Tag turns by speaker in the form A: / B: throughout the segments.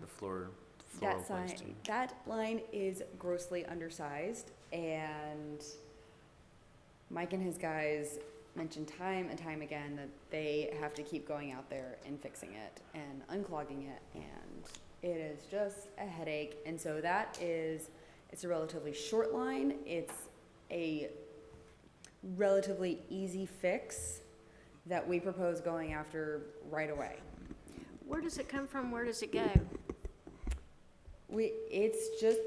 A: the floor, floral
B: That
A: place
B: sign, that line is grossly undersized and Mike and his guys mentioned time and time again that they have to keep going out there and fixing it and unclogging it and it is just a headache. And so that is, it's a relatively short line. It's a relatively easy fix that we propose going after right away.
C: Where does it come from? Where does it go?
B: We, it's just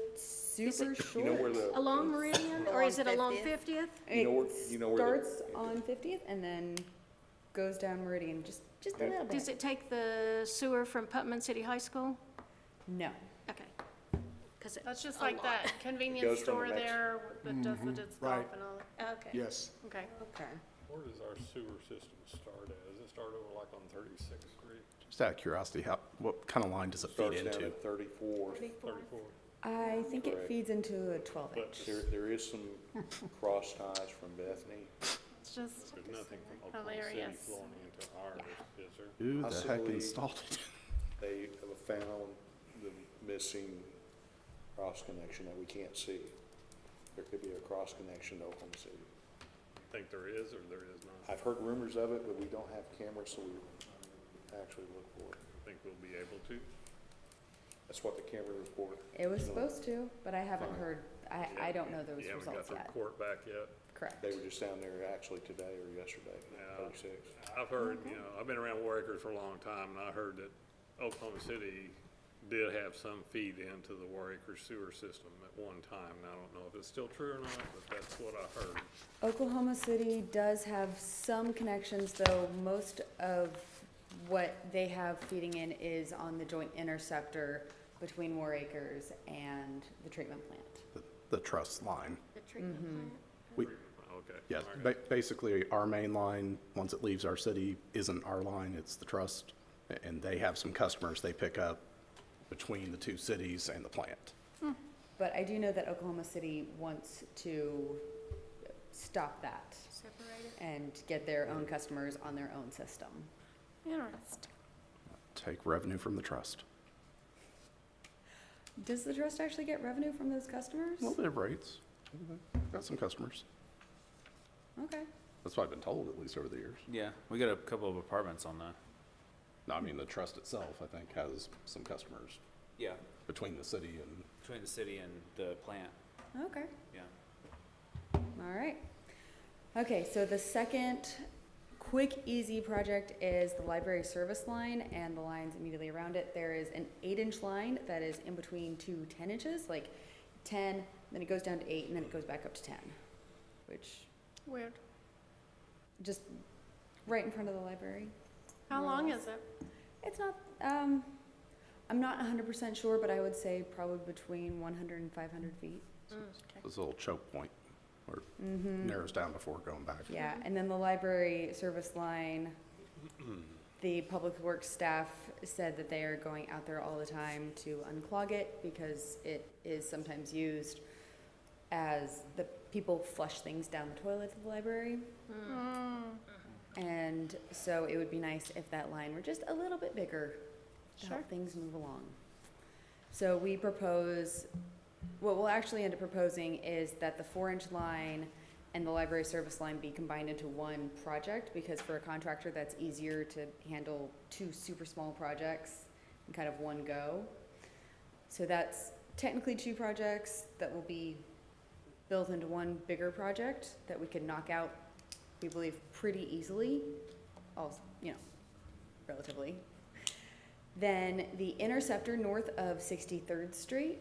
C: Is
B: super
C: it-
B: short.
D: You know where the,
C: Along Meridian or is it along
E: Along 50th?
C: Fiftieth?
D: You know where-
B: It
D: you know where the-
B: Starts on Fiftieth and then goes down Meridian, just, just a
D: Yeah.
B: little
C: Does
B: bit.
C: it take the sewer from Putman City High School?
B: No,
C: Okay. 'Cause it-
F: That's just
C: a
F: like
C: lot.
F: that
D: goes
F: convenience
D: from
F: store
D: the Mm-hmm. Mex-
F: there that does the disc golf
G: right.
F: and all that.
C: Okay,
G: Yes.
F: Okay.
B: okay.
H: Where does our sewer system start at? Does it start over like on 36th Street,
I: Just out of curiosity, how, what kind of line does it feed
D: starts down
I: into?
D: at thirty-four.
H: 34?
B: I think it
D: Correct.
B: feeds into a twelve
H: But
B: inch.
D: There, there is some cross ties from Bethany.
F: It's just
H: There's nothing from Oklahoma City
F: Hilarious.
H: flowing into ours, is there?
I: Who the heck
D: Possibly-
I: installed it?
D: They have found the missing cross connection that we can't see. There could be a cross connection to Oklahoma City.
H: Think there is or there is not?
D: I've heard rumors of it, but we don't have cameras, so we actually look for it.
H: I think we'll be able to.
D: That's what the camera report.
B: It was supposed to, but I haven't
D: Fine.
B: heard, I, I don't know those
H: Yeah, we got
B: results
H: the
B: yet.
H: report back yet.
B: Correct.
D: They were just down there actually today or yesterday,
H: Yeah.
D: thirty-six.
H: I've heard, you know, I've been around War Acres for a long time, and I heard that Oklahoma City did have some feed into the War Acres sewer system at one time. And I don't know if it's still true or not, but that's what I heard.
B: Oklahoma City does have some connections, though most of what they have feeding in is on the joint interceptor between War Acres and the treatment plant.
I: The- The truss line.
E: The treatment
D: Mm-hmm.
E: plant.
H: Okay.
I: Yes,
H: all right.
I: ba- basically, our main line, once it leaves our city, isn't our line, it's the trust. a- And they have some customers they pick up between the two cities and the plant.
B: But I do know that Oklahoma City wants to stop that
E: Separate it.
B: and get their own customers on their own system.
F: Interesting.
I: Take revenue from the trust.
B: Does the trust actually get revenue from those customers?
I: A little bit of rates. Got some customers.
B: Okay.
I: That's what I've been told, at least over the years.
A: Yeah, we got a couple of apartments on that.
I: No, I mean, the trust itself, I think, has some customers
A: Yeah,
I: between the city and
A: between the city and the plant,
B: Okay.
A: yeah.
B: All right. Okay, so the second quick, easy project is the library service line and the lines immediately around it. There is an eight inch line that is in between two 10 inches, like 10, then it goes down to eight, and then it goes back up to 10, which
F: Weird.
B: just right in front of the library.
F: How
B: More or
F: long
B: less.
F: is it?
B: It's not, um, I'm not hundred percent sure, but I would say probably between one hundred and five hundred feet.
C: mm,
I: this little choke point where it
B: Mm-hmm.
I: narrows down before going back.
B: Yeah, and then the library service line, the public works staff said that they are going out there all the time to unclog it because it is sometimes used as the people flush things down the toilet at the library. And so it would be nice if that line were just a little bit bigger to help things move along. So we propose, what we'll actually end up proposing is that the four-inch line and the library service line be combined into one project, because for a contractor, that's easier to handle two super small projects in kind of one go. So that's technically two projects that will be built into one bigger project that we could knock out, we believe, pretty easily, also, you know, relatively. Then the interceptor north of 63rd Street.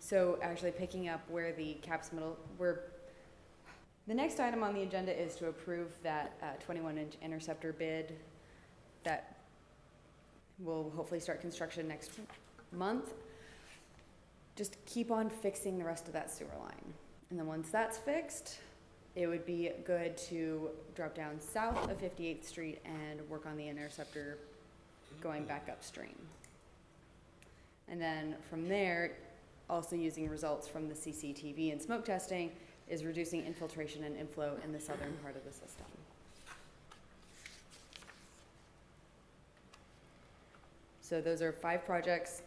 B: So actually picking up where the caps middle, where, the next item on the agenda is to approve that 21-inch interceptor bid that will hopefully start construction next month. Just keep on fixing the rest of that sewer line. And then once that's fixed, it would be good to drop down south of 58th Street and work on the interceptor going back upstream. And then from there, also using results from the CCTV and smoke testing is reducing infiltration and inflow in the southern part of the system. So those are five projects